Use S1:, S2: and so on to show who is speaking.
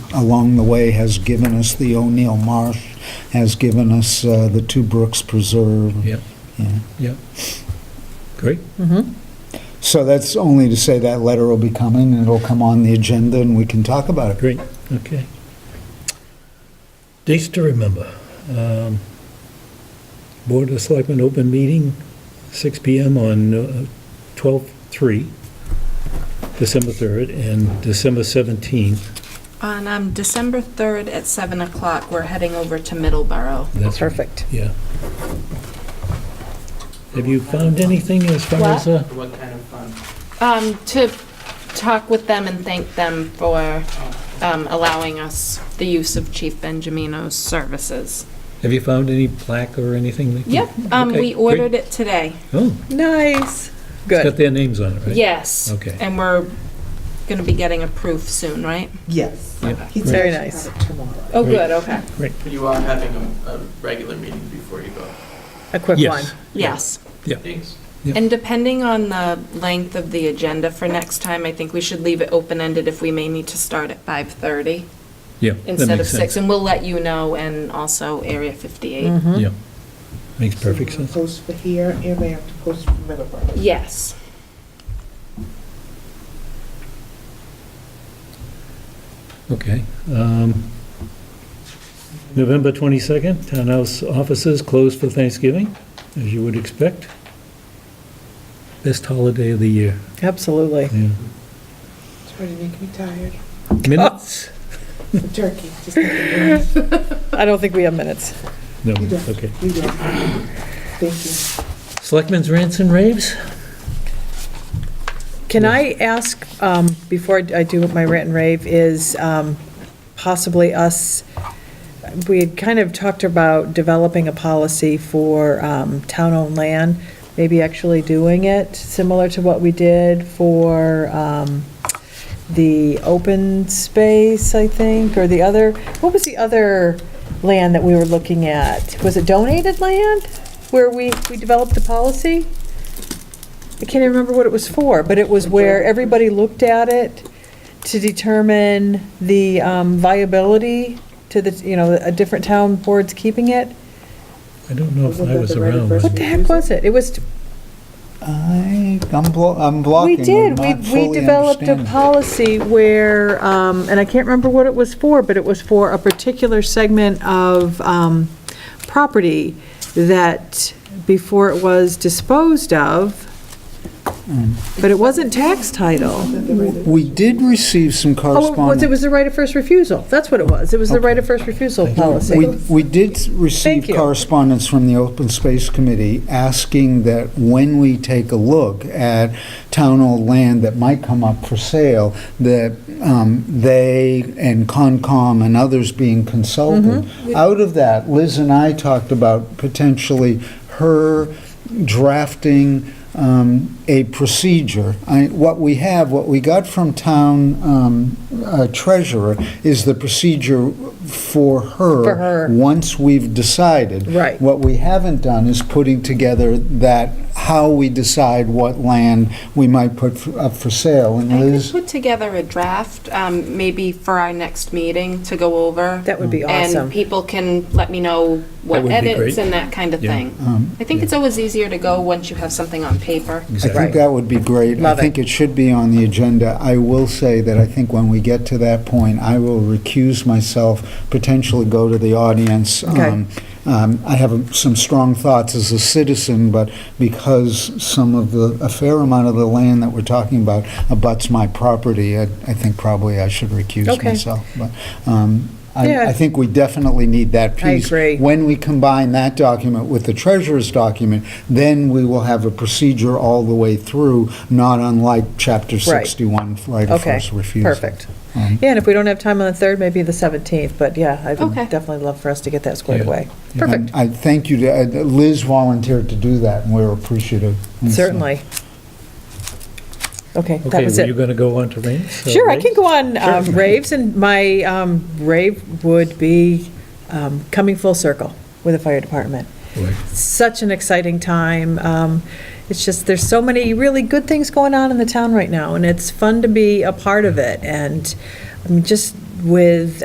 S1: along the way has given us the O'Neill Marsh, has given us uh, the Two Brooks Preserve.
S2: Yep.
S1: Yeah.
S2: Yep. Great.
S1: So that's only to say that letter will be coming, and it'll come on the agenda, and we can talk about it.
S2: Great, okay. Dates to remember. Um, Board of Selectmen open meeting, 6 PM on uh, 12/3, December 3rd, and December 17th.
S3: On um, December 3rd at 7 o'clock, we're heading over to Middleborough.
S2: That's-
S4: Perfect.
S2: Yeah. Have you found anything as far
S3: What?
S2: as, uh,
S5: What kind of fun?
S3: Um, to talk with them and thank them for um, allowing us the use of Chief Benjamino's services.
S2: have you found any plaque or anything? that you-
S3: Yep, um,
S2: Mm-hmm. Okay,
S3: we
S2: great.
S3: ordered it today.
S2: Oh,
S4: Nice.
S2: it's got
S4: Good.
S2: their names on it, right?
S3: Yes.
S2: Okay.
S3: And we're going to be getting a proof soon, right?
S5: Yes.
S2: Yeah.
S5: He's
S4: Very
S5: actually
S4: nice.
S5: got it tomorrow.
S3: Oh,
S2: Great.
S3: good, okay.
S5: You are having a, a regular meeting before you go.
S4: A quick one.
S2: Yes.
S3: Yes.
S5: Thanks.
S2: Yep.
S3: And depending on the length of the agenda for next time, I think we should leave it open-ended if we may need to start at 5:30
S2: Yeah. that
S3: instead of
S2: makes
S3: 6.
S2: sense. Mm-hmm.
S3: And we'll let you know, and also Area 58.
S4: Hmm?
S2: Yeah. Makes perfect
S5: So we're gonna
S2: sense.
S5: Post for here, and they have to post for Middleborough.
S3: Yes.
S2: Okay. um, November 22nd, townhouse offices closed for Thanksgiving, as you would expect. Best holiday of the year,
S4: Absolutely.
S2: yeah.
S5: It's already making me tired.
S2: Minutes?
S5: The turkey, just like the
S4: I don't think we have minutes.
S2: No,
S5: You
S2: minutes,
S5: don't.
S2: okay.
S5: We don't. Thank you.
S2: Selectmen's rants and raves?
S4: Can I ask, um, before I do my rant and rave, is um, possibly us, we had kind of talked about developing a policy for um, town-owned land, maybe actually doing it, similar to what we did for um, the open space, I think, or the other, what was the other land that we were looking at? Was it donated land, where we, we developed the policy? I can't even remember what it was for, but it was where everybody looked at it to determine the um, viability to the, you know, a different town boards keeping it.
S2: I don't know if
S5: Wasn't
S2: I
S5: that
S2: was
S5: the right
S2: around.
S5: person?
S4: What the heck was it? It was,
S1: I, I'm blo- I'm
S4: we
S1: blocking.
S4: did, we,
S1: I'm not
S4: we
S1: fully
S4: developed a
S1: understanding.
S4: policy where, um, and I can't remember what it was for, but it was for a particular segment of um, property that before it was disposed of,
S1: Mm.
S4: but it wasn't tax title.
S1: We did receive some
S4: Oh, it was, it
S1: correspondence.
S4: was the right of first refusal. That's what it was. It was the right of first refusal
S1: We,
S4: policy.
S1: we did receive
S4: Thank you.
S1: correspondence from the Open Space Committee asking that when we take a look at town-owned land that might come up for sale, that um, they and Concom and others being consulted.
S4: Mm-hmm.
S1: Out of that, Liz and I talked about potentially her drafting um, a procedure. I- What we have, what we got from town um, uh, treasurer is the procedure for her.
S4: For her.
S1: Once we've decided.
S4: Right.
S1: What we haven't done is putting together that, how we decide what land we might put f- up for sale. And
S3: I could
S1: Liz,
S3: put together a draft, um, maybe for our next meeting to go over.
S4: That would be
S3: And
S4: awesome.
S3: people can let me know
S2: That
S3: what
S2: would be
S3: edits
S2: great.
S3: and that kind of
S2: Yeah.
S3: thing. I think it's always easier to go once you have something on paper.
S1: I
S2: Exactly.
S1: think
S4: Right.
S1: that would be great.
S4: Love
S1: I
S4: it.
S1: think it should be on the agenda. I will say that I think when we get to that point, I will recuse myself, potentially go to the audience.
S4: Okay.
S1: Um, um, I have um, some strong thoughts as a citizen, but because some of the, a fair amount of the land that we're talking about abuts my property, I I think probably I should recuse
S4: Okay.
S1: myself. But um,
S4: Yeah.
S1: I I think we definitely need that
S4: I
S1: piece.
S4: agree.
S1: When we combine that document with the treasurer's document, then we will have a procedure all the way through, not unlike Chapter
S4: Right.
S1: 61, right of
S4: Okay,
S1: first refusal.
S4: perfect.
S1: Um,
S4: Yeah, and if we don't have time on the 3rd, maybe the 17th, but yeah, I would
S3: Okay.
S4: definitely love for us to get that squared
S2: Yeah.
S4: away.
S1: and
S4: Perfect,
S1: I thank you, to- uh, Liz volunteered to do that, and we're appreciative. And so-
S4: certainly. Okay, that
S2: Okay,
S4: was
S2: were you
S4: it.
S2: going to go on to rants? or
S4: Sure, I can
S2: raves?
S4: go on um, raves, and my um, rave would be um, coming full circle with the fire department.
S2: Boy,
S4: such an exciting time. Um, It's just, there's so many really good things going on in the town right now, and it's fun to be a part of it. And um, just with